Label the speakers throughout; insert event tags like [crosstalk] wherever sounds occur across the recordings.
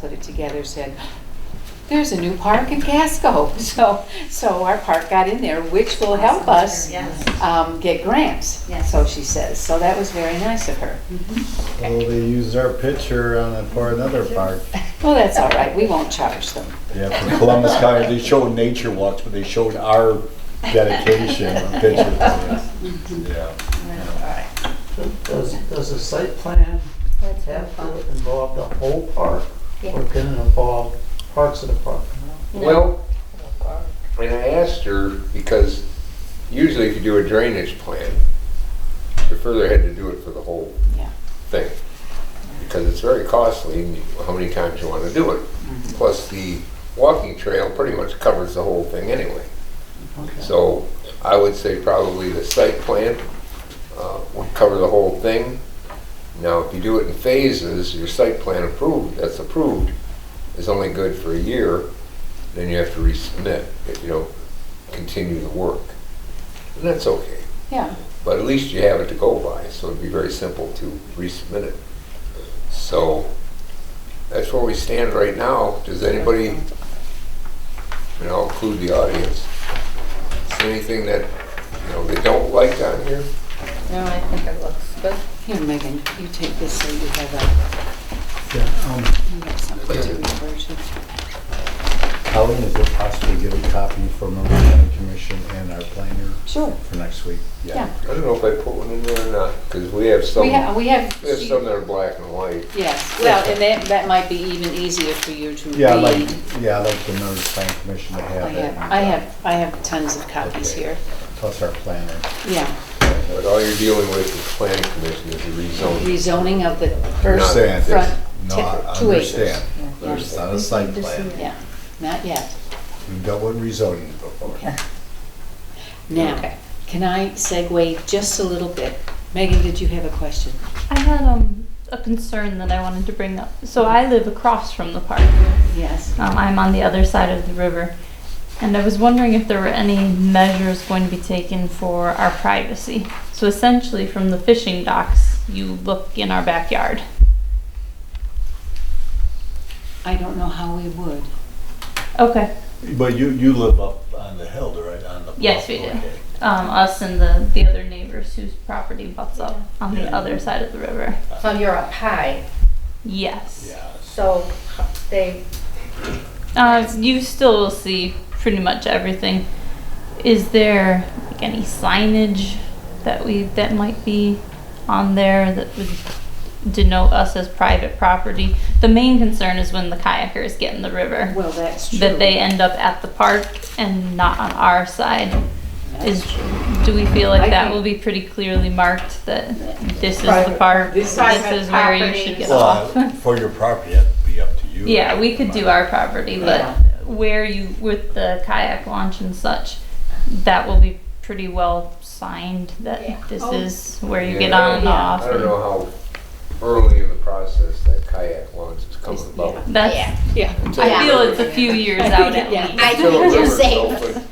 Speaker 1: put it together, said, there's a new park in Casco. [laughs] So, so our park got in there, which will help us
Speaker 2: Yes.
Speaker 1: um, get grants,
Speaker 2: Yes.
Speaker 1: so she says. So that was very nice of her.
Speaker 3: Well, they used our picture on it for another park.
Speaker 1: Well, that's all right, we won't charge them.
Speaker 3: Yeah, for Columbus County, they showed nature walks, but they showed our
Speaker 1: [laughs]
Speaker 3: dedication of pictures. Yeah.
Speaker 4: Does, does the site plan have to involve the whole park? Or can it involve parts of the park?
Speaker 5: Well, and I asked her, because usually if you do a drainage plan, you further had to do it for the whole
Speaker 1: Yeah.
Speaker 5: thing. Because it's very costly, and you- how many times you wanna do it. Plus, the walking trail pretty much covers the whole thing anyway. So I would say probably the site plan uh, would cover the whole thing. Now, if you do it in phases, your site plan approved, that's approved, is only good for a year, then you have to resubmit if you don't continue the work. And that's okay,
Speaker 1: Yeah,
Speaker 5: but at least you have it to go by, so it'd be very simple to resubmit it. So that's where we stand right now. Does anybody, and I'll include the audience, is there anything that, you know, they don't like on here?
Speaker 2: No, I think it looks good.
Speaker 1: here Megan, you take this so you have a, you have something to refer to.
Speaker 3: How is it possible to get a copy from the planning commission and our planner
Speaker 1: Sure,
Speaker 3: for next week?
Speaker 1: yeah.
Speaker 5: I don't know if I put one in there or not, because we have some,
Speaker 1: We have, we have.
Speaker 5: we have some that are black and white.
Speaker 1: Yes, well, and that, that might be even easier for you to read.
Speaker 3: Yeah, I'd like, yeah, I'd like the Northern Planning Commission to
Speaker 1: I
Speaker 3: have it.
Speaker 1: have, I have, I have tons of copies
Speaker 3: Okay.
Speaker 1: here,
Speaker 3: Plus our planner.
Speaker 1: yeah.
Speaker 5: But all you're dealing with is planning commission is the rezoning.
Speaker 1: Rezoning of the first,
Speaker 3: Understand,
Speaker 1: front
Speaker 3: it's not,
Speaker 1: tip- two acres.
Speaker 3: understand.
Speaker 1: Yeah.
Speaker 3: There's not a site plan.
Speaker 1: yeah, not yet.
Speaker 3: We've dealt with rezoning before.
Speaker 1: Now, can I segue just a little bit? Megan, did you have a question?
Speaker 6: I had um, a concern that I wanted to bring up. So I live across from the park.
Speaker 1: Yes.
Speaker 6: Um, I'm on the other side of the river. And I was wondering if there were any measures going to be taken for our privacy. So essentially, from the fishing docks, you look in our backyard.
Speaker 1: I don't know how we would.
Speaker 6: Okay.
Speaker 3: But you, you live up on the hill, right, on the
Speaker 6: Yes, we do. Um, us and the, the other neighbors whose property butts up on the
Speaker 3: Yeah.
Speaker 6: other side of the river.
Speaker 2: So you're up high,
Speaker 6: Yes.
Speaker 2: so they,
Speaker 6: Uh, you still see pretty much everything. Is there like, any signage that we that might be on there that would denote us as private property? The main concern is when the kayakers get in the river
Speaker 1: Well, that's true.
Speaker 6: that they end up at the park and not on our side. Is do we feel
Speaker 1: I
Speaker 6: like that
Speaker 1: think-
Speaker 6: will be pretty clearly marked that this is the
Speaker 4: Private-
Speaker 6: park,
Speaker 1: this
Speaker 6: this,
Speaker 1: is-
Speaker 6: is where you should get off?
Speaker 3: Well, for your property, that'd be up to you.
Speaker 6: Yeah, we could do our property,
Speaker 1: Yeah.
Speaker 6: but where you, with the kayak launch and such, that will be pretty well signed
Speaker 2: Yeah.
Speaker 6: that this
Speaker 2: Oh.
Speaker 6: is where you
Speaker 5: Yeah,
Speaker 6: get
Speaker 5: I
Speaker 6: on and
Speaker 5: don't-
Speaker 6: off.
Speaker 5: I don't know how early in the process that kayak launch is coming about.
Speaker 6: That's,
Speaker 1: Yeah.
Speaker 6: I feel it's a few years out
Speaker 1: [laughs]
Speaker 6: at
Speaker 1: Yeah.
Speaker 6: least.
Speaker 7: I
Speaker 5: Still
Speaker 7: think
Speaker 5: a
Speaker 7: you're
Speaker 5: river,
Speaker 7: safe.
Speaker 5: so,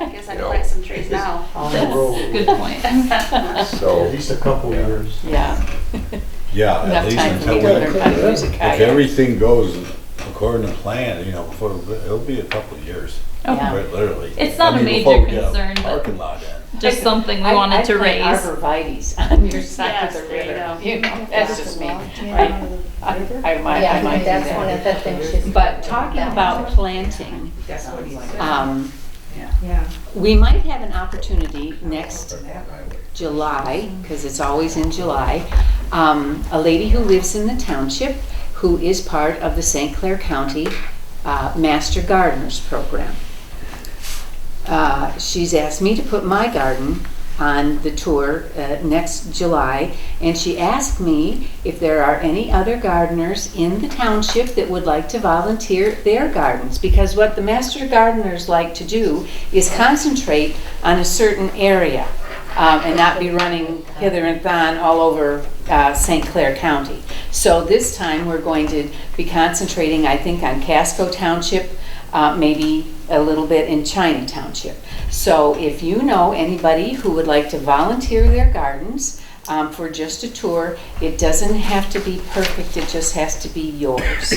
Speaker 7: I guess I
Speaker 5: You know,
Speaker 7: can plant some trees now.
Speaker 4: On the
Speaker 6: That's
Speaker 4: road,
Speaker 6: a
Speaker 1: [laughs]
Speaker 6: good point. [laughs]
Speaker 5: but-
Speaker 4: at
Speaker 5: So,
Speaker 4: least a couple years.
Speaker 1: Yeah,
Speaker 3: Yeah, at
Speaker 1: enough
Speaker 3: least
Speaker 1: time for
Speaker 3: until
Speaker 1: me
Speaker 3: we,
Speaker 1: to learn how to use a
Speaker 3: if
Speaker 1: kayak.
Speaker 3: everything goes according to plan, you know, before, it'll be a couple of years,
Speaker 1: Yeah.
Speaker 3: quite literally.
Speaker 6: It's not
Speaker 3: I
Speaker 6: a
Speaker 3: mean,
Speaker 6: major
Speaker 3: before we get a
Speaker 6: concern, but-
Speaker 3: Parking lot in.
Speaker 6: Just something we
Speaker 1: I-
Speaker 6: wanted to
Speaker 1: I plant
Speaker 6: raise.
Speaker 1: arborvitae's on your side of
Speaker 7: Yes,
Speaker 1: the
Speaker 7: there you
Speaker 1: river,
Speaker 7: go.
Speaker 1: you know, that's just me.
Speaker 2: Yeah.
Speaker 1: I I might, I might
Speaker 2: yeah,
Speaker 1: do
Speaker 2: that's one
Speaker 1: that.
Speaker 2: of the things she's.
Speaker 1: But talking about planting, um, we might have an opportunity next July, because it's always in July, um, a lady who lives in the township who is part of the St. Clair County uh, Master Gardeners Program. Uh, She's asked me to put my garden on the tour uh, next July, and she asked me if there are any other gardeners in the township that would like to volunteer their gardens. Because what the master gardeners like to do is concentrate on a certain area um, and not be running hither and thon all over uh, St. Clair County. So this time, we're going to be concentrating, I think, on Casco Township, uh, maybe a little bit in China Township. So if you know anybody who would like to volunteer their gardens um, for just a tour, it doesn't have to be perfect, it just has to be yours.